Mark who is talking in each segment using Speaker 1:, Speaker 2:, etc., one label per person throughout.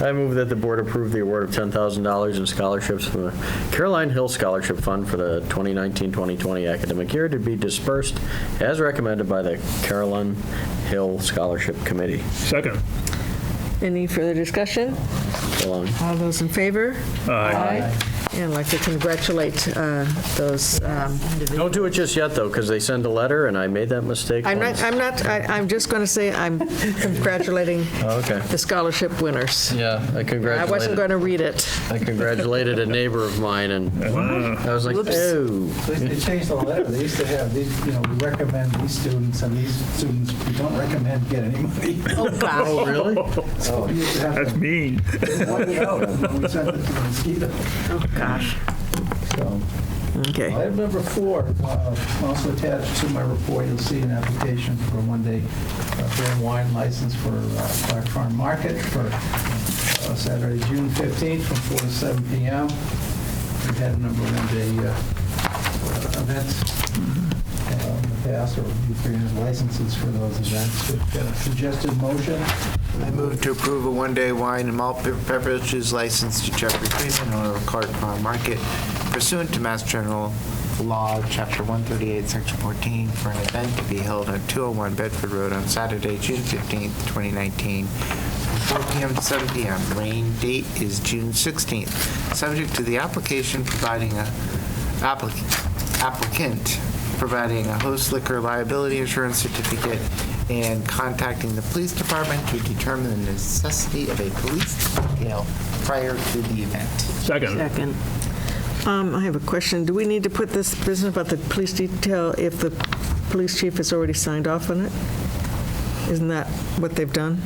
Speaker 1: I move that the board approve the award of $10,000 in scholarships from the Caroline Hill Scholarship Fund for the 2019-2020 academic year to be dispersed as recommended by the Caroline Hill Scholarship Committee.
Speaker 2: Second.
Speaker 3: Any further discussion?
Speaker 1: Alone.
Speaker 3: All those in favor?
Speaker 2: Aye.
Speaker 3: And I'd like to congratulate uh, those, um,
Speaker 1: Don't do it just yet, though, because they send a letter, and I made that mistake
Speaker 3: I'm not,
Speaker 1: once.
Speaker 3: I'm not, I- I'm just going to say I'm congratulating
Speaker 1: Oh, okay.
Speaker 3: the scholarship winners.
Speaker 1: Yeah, I
Speaker 3: I wasn't going
Speaker 1: congratulated,
Speaker 3: to read it.
Speaker 1: I congratulated a neighbor of mine, and I was like, oh.
Speaker 4: They- They changed the letter. They used to have, these, you know, we recommend these students, and these students, we don't recommend get any money.
Speaker 3: Oh, gosh.
Speaker 1: Oh, really?
Speaker 4: So we used to have
Speaker 2: That's
Speaker 4: to
Speaker 2: mean.
Speaker 4: point it out when we sent it to Mosquito.
Speaker 3: Oh, gosh.
Speaker 4: So,
Speaker 3: Okay.
Speaker 4: Item number four, uh, also attached to my report, you'll see an application for a one-day uh, beer and wine license for uh, Clark Farm Market for uh, Saturday, June 15th, from 4 to 7 p.m. We've had a number of one-day uh, uh, events uh, in the past, or we've granted licenses for those events. We've got a Suggested motion,
Speaker 5: I move to approve a one-day wine and malt beverages license to Jeffrey Freeman, owner of Clark Farm Market pursuant to Mass General Law, Chapter 138, Section 14, for an event to be held on 201 Bedford Road on Saturday, June 15th, 2019, from 4 p.m. to 7 p.m. Rain date is June 16th, subject to the application providing a, applic- applicant providing a host liquor liability insurance certificate, and contacting the police department to determine the necessity of a police detail prior to the event.
Speaker 2: Second.
Speaker 3: Second. Um, I have a question. Do we need to put this business about the police detail if the police chief has already signed off on it? Isn't that what they've done?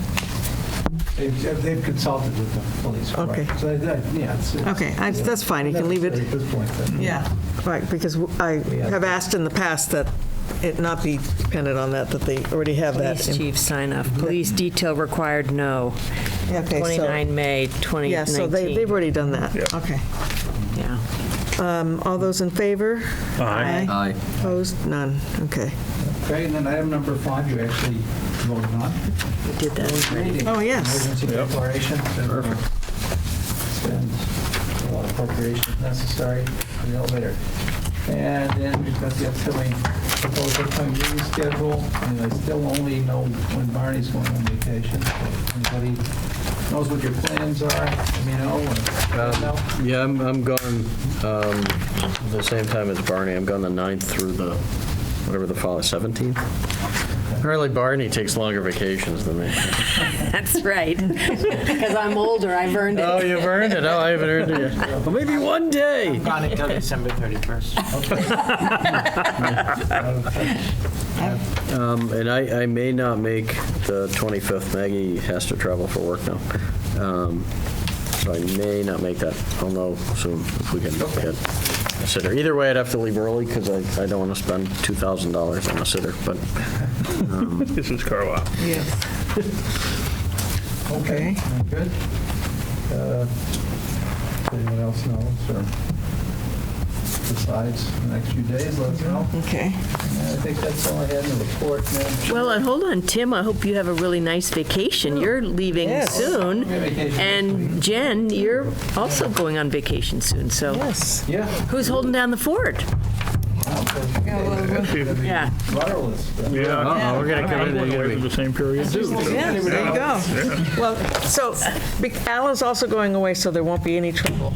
Speaker 4: they've they've consulted with the police. correct?
Speaker 3: Okay.
Speaker 4: So, that- yeah. it's- it's-
Speaker 3: Okay, I- that's fine. You can leave it.
Speaker 4: At this point, then.
Speaker 3: Yeah. Right, because I have asked in the past that it not be dependent on that, that they already have that.
Speaker 6: Police chief sign off. Police detail required, no.
Speaker 3: Okay, so-
Speaker 6: 29 May
Speaker 3: Yeah, so they, they've
Speaker 6: 2019.
Speaker 3: already done that.
Speaker 2: Yeah.
Speaker 3: Okay.
Speaker 6: Yeah.
Speaker 3: Um, All those in favor?
Speaker 2: Aye.
Speaker 1: Aye.
Speaker 3: Opposed? None. Okay.
Speaker 4: Okay, and then item number five, you actually voted on.
Speaker 6: We did that.
Speaker 3: Oh, yes.
Speaker 4: Emergency declaration. Perfect. Spend a lot of appropriations necessary for the elevator. And then we've got the upcoming, proposed upcoming meeting schedule, and I still only know when Barney's going on vacation. If Anybody knows what your plans are, let me know. or- No?
Speaker 1: Yeah, I'm, I'm gone, um, the same time as Barney, I'm gone the 9th through the, whatever the fall, 17th? Apparently Barney takes longer vacations than me.
Speaker 6: That's right. Because I'm older, I've earned
Speaker 1: Oh,
Speaker 6: it.
Speaker 1: you've earned it, oh, I haven't earned it yet. Well, maybe one day.
Speaker 5: Gone until December 31st.
Speaker 1: Um, And I, I may not make the 25th, Maggie has to travel for work now. Um, So I may not make that, I'll know soon if we can get a sitter. Either way, I'd have to leave early because I, I don't want to spend $2,000 on a sitter, but
Speaker 2: This is Carlisle.
Speaker 4: Okay, good. Uh, if Anyone else knows or decides in the next few days, let us know.
Speaker 7: Mm-hmm.
Speaker 3: Okay.
Speaker 4: And I think that's all I had in the report, Madam Chair.
Speaker 7: Well, and hold on, Tim, I hope you have a really nice vacation. You're leaving
Speaker 3: Yes.
Speaker 7: soon.
Speaker 4: Yeah, vacation next
Speaker 7: And Jen, you're also going on vacation soon, so
Speaker 3: Yes.
Speaker 4: Yeah.
Speaker 7: who's holding down the fort?
Speaker 4: wow, that's-
Speaker 7: Yeah.
Speaker 4: Wireless.
Speaker 2: Yeah.
Speaker 1: we're gonna come
Speaker 2: I'm
Speaker 1: in,
Speaker 2: going
Speaker 1: we're
Speaker 2: away
Speaker 1: gonna
Speaker 2: for
Speaker 1: be-
Speaker 2: the same period, too.
Speaker 3: Yeah, there you go. Well, so be- Alan's also going away, so there won't be any trouble.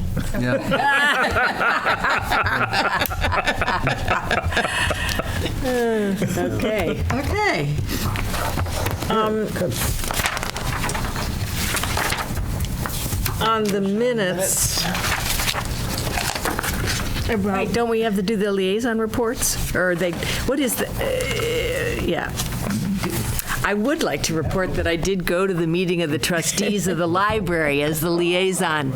Speaker 7: Okay.
Speaker 3: Okay. Um, On the minutes. About
Speaker 7: Wait, don't we have to do the liaison reports? Or they, what is the, uh, yeah. I would like to report that I did go to the meeting of the trustees of the library as the liaison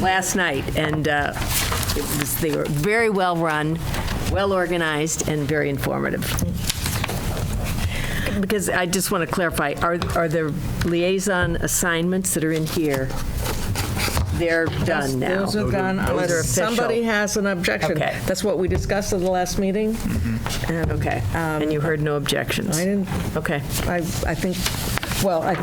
Speaker 7: last night, and uh, it was, they were very well-run, well-organized, and very informative. Because I just want to clarify, are, are the liaison assignments that are in here, they're done now?
Speaker 3: Those are gone unless
Speaker 7: official.
Speaker 3: somebody has an objection.
Speaker 7: Okay.
Speaker 3: That's what we discussed at the last meeting.
Speaker 7: Okay, and you heard no objections?
Speaker 3: um, I didn't,
Speaker 7: Okay.
Speaker 3: I, I think, well, I